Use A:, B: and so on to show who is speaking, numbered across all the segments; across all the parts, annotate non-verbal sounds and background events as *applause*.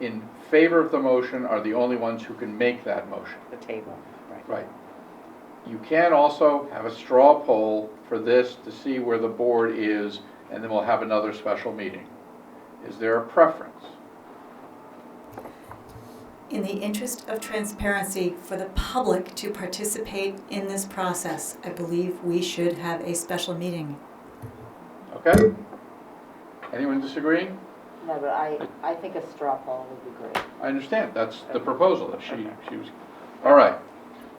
A: in favor of the motion are the only ones who can make that motion.
B: the table, right?
A: Right. You can also have a straw poll for this to see where the board is, and then we'll have another special meeting. Is there a preference?
C: In the interest of transparency for the public to participate in this process, I believe we should have a special meeting.
A: Okay? Anyone disagreeing?
D: No, but I, I think a straw poll would be great.
A: I understand, that's the proposal, that she, she was, all right.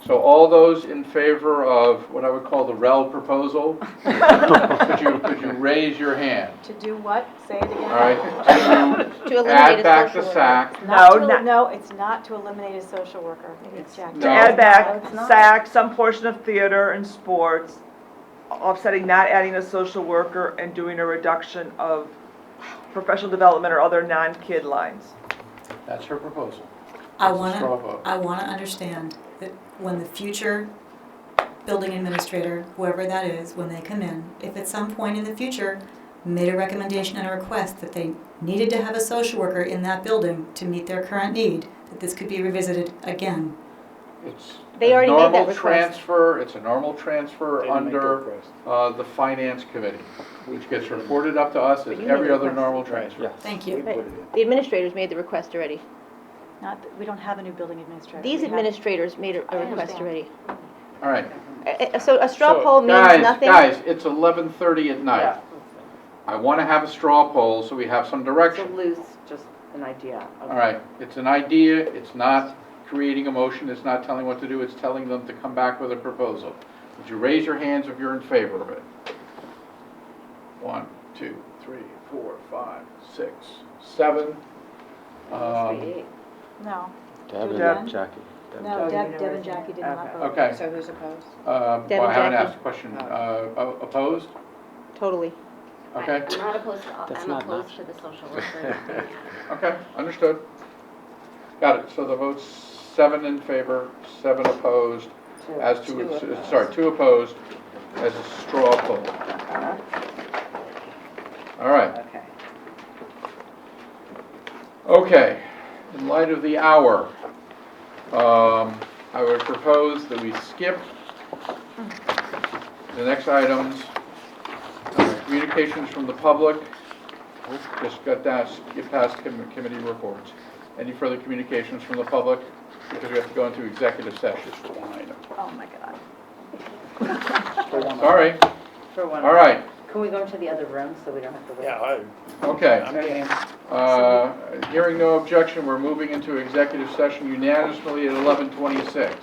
A: So all those in favor of what I would call the REL proposal, could you, could you raise your hand?
E: To do what? Say it again.
A: All
F: *laughs*
A: right?
F: To eliminate a social.
A: Add back the
F: worker.
A: SAC,
E: Not to
G: No,
E: el-
G: not-
E: No, it's not to eliminate a social worker. It's Jack.
A: No.
G: To add back
F: it's not.
G: SAC, some portion of theater and sports, offsetting not adding a social worker and doing a reduction of professional development or other non-kid lines.
A: that's her proposal.
C: I
A: That's a straw
C: wanna,
A: vote.
C: I wanna understand that when the future building administrator, whoever that is, when they come in, if at some point in the future made a recommendation and a request that they needed to have a social worker in that building to meet their current need, that this could be revisited again.
A: It's
F: They
A: a
F: already made that
A: normal
F: request.
A: transfer, it's a normal transfer
H: They didn't make the
A: under
H: request.
A: uh, the finance committee, which gets reported up to us as
F: But you made
A: every
F: the
A: other
F: request.
A: normal
H: Right,
A: transfer.
H: yeah.
C: Thank
H: We
C: you.
H: put it in.
F: The administrators made the request already.
E: Not, that- we don't have a new building administrator.
F: These
E: We have-
F: administrators made a-
E: I
F: a request
E: understand.
F: already.
A: All right.
F: Uh, uh, So a straw
H: So,
F: poll means
A: Guys,
F: nothing?
A: Guys, it's 11:30 at night.
D: Yeah.
A: I want to have a straw poll so we have some
D: It's a
A: direction.
D: loose, just an idea. of-
A: All right, it's an idea, it's not creating a motion, it's not telling what to do, it's telling them to come back with a proposal. Would you raise your hands if you're in favor of it? One, two, three, four, five, six, seven.
D: That must be
A: Um,
D: it.
E: No,
H: Deb
G: Deb.
H: and Jackie. Deb,
E: no,
H: Jackie.
E: Deb, Deb and Jackie did not
D: Okay.
E: vote.
A: Okay,
B: So who's opposed? Oh.
A: uh,
F: Deb
A: well, I
F: and
A: haven't
F: Jackie.
A: asked the question. Uh, o- Opposed?
F: Totally.
A: Okay,
I: I'm not opposed to,
H: That's
I: I'm
H: not an
I: opposed to the social worker.
A: okay, understood. Got it, so the vote's seven in favor, seven opposed,
D: Two.
A: as
D: Two
A: to, uh,
D: opposed.
A: sorry, two opposed, as a straw poll.
D: Uh-huh.
A: All right,
D: Okay.
A: okay, in light of the hour, um, I would propose that we skip the next items, uh, communications from the public, just got that, skip past com- committee reports. Any further communications from the public, because we have to go into executive session for one item.
E: Oh, my God.
A: Sorry,
D: For one.
A: all right,
D: Can we go into the other room so we don't have to wait?
H: Yeah, I-
A: okay.
H: I'm getting
A: Uh, Hearing no objection, we're moving into executive session unanimously at 11:26.